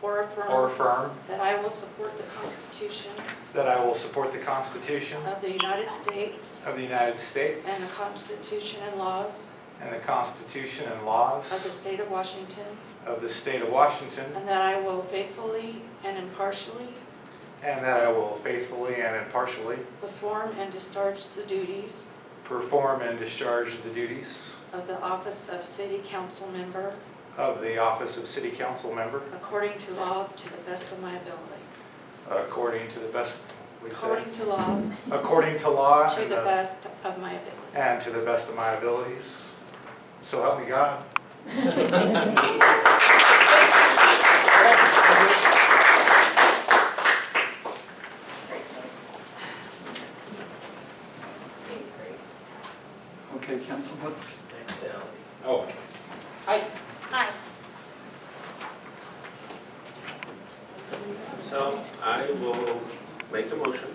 or or affirm affirm that I will support the Constitution that I will support the Constitution of the United States of the United States and the Constitution and laws and the Constitution and of the laws state of Washington, of the state of Washington, and that I will faithfully and impartially and that I will faithfully and impartially perform and discharge the duties perform and discharge the duties of the office of city council member of the office of city council member according to law to the best of my ability. according to the best, we say, According to law, according to law to and the the- best of my ability. and to the best of my abilities. So help me God. Okay, council, what's, Oh. Aye. So I will make a motion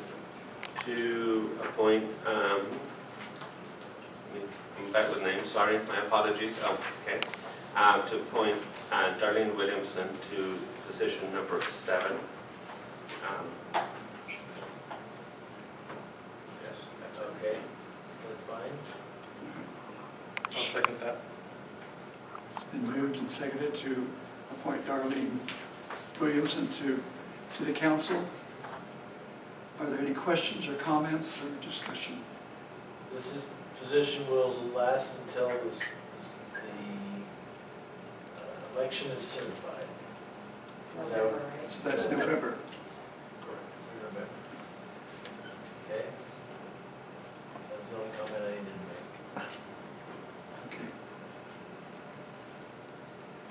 to appoint, um, I'm back with names, sorry, my apologies, oh, okay. Um, to appoint uh, Darlene Williamson to position number seven. Um, Yes, that's okay. That's fine. I'll second that. it's been moved and seconded to appoint Darlene Williamson to city council. Are there any questions or comments or discussion? This is, position will last until this, this- the uh, election is certified. Is that what- So that's November. Okay? That's the only comment I need to make. Okay.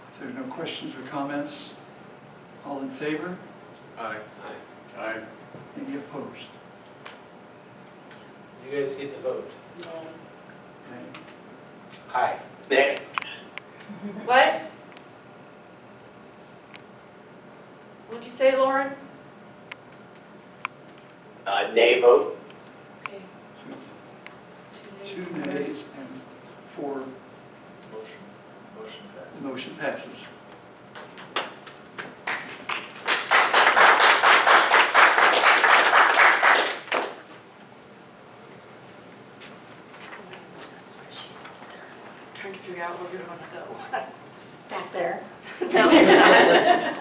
If there are no questions or comments, all in favor? Aye. Aye. Aye. Any opposed? You guys get the vote. Okay. Aye. What? What'd you say, Lauren? Uh, nay vote? Okay. Two nays and four, Motion, motion the passes. motion passes. She sits there, trying to figure out where you're gonna Back there, go. No, you're not.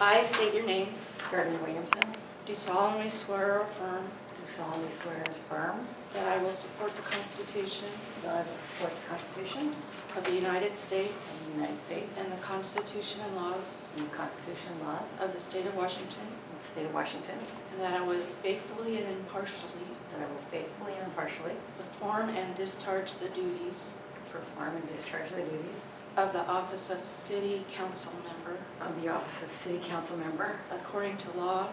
I state your name, Gordon Williamson, do solemnly swear or affirm do solemnly swear and affirm that I will support the Constitution that I will support the Constitution of the United of States the United States and the Constitution and laws and the Constitution and laws of the state of Washington, of the State of Washington, and that I will faithfully and impartially that I will faithfully and impartially perform and discharge the duties perform and discharge the duties of the office of city council member of the office of City Council Member according to law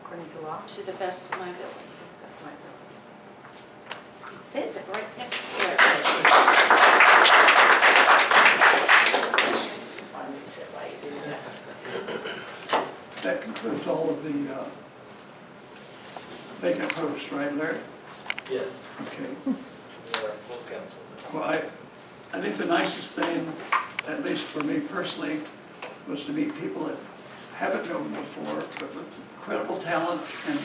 according to law. to the best of my ability. That's my vote. This is right next to it. Just wanted me to sit while you do that. That concludes all of the uh, vacant posts, right, Larry? Yes, Okay. we are full council. Well, I, I think the nicest thing, at least for me personally, was to meet people that haven't known before, but with incredible talents and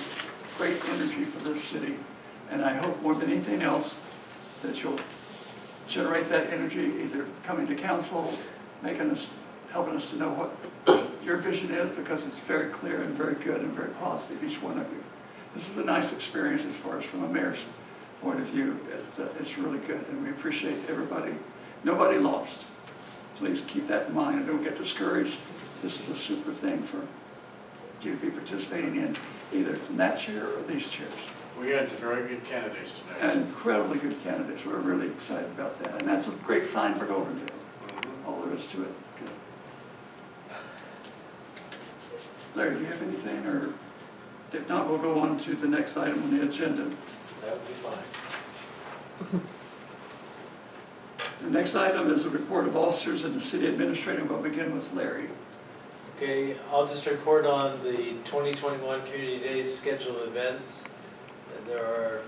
great energy for this city. And I hope more than anything else, that you'll generate that energy, either coming to council, making us, helping us to know what your vision is, because it's very clear and very good and very positive, each one of you. This is a nice experience as far as from a mayor's point of view. It, uh, It's really good, and we appreciate everybody. Nobody lost. Please keep that in mind and don't get discouraged. This is a super thing for you to be participating in, either from that chair or these chairs We had some very good candidates tonight. incredibly good candidates. We're really excited about that, and that's a great sign for Goldendale. All there is to it. Good. Larry, do you have anything, or if not, we'll go on to the next item on the agenda. That would be fine. The next item is a report of officers and the city administrator. We'll begin with Larry. Okay, I'll just report on the 2021 Community Days scheduled events. And There are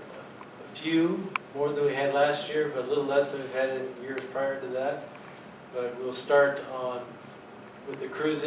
a few, more than we had last year, but a little less than we've had in years prior to that. But we'll start on, with the cruise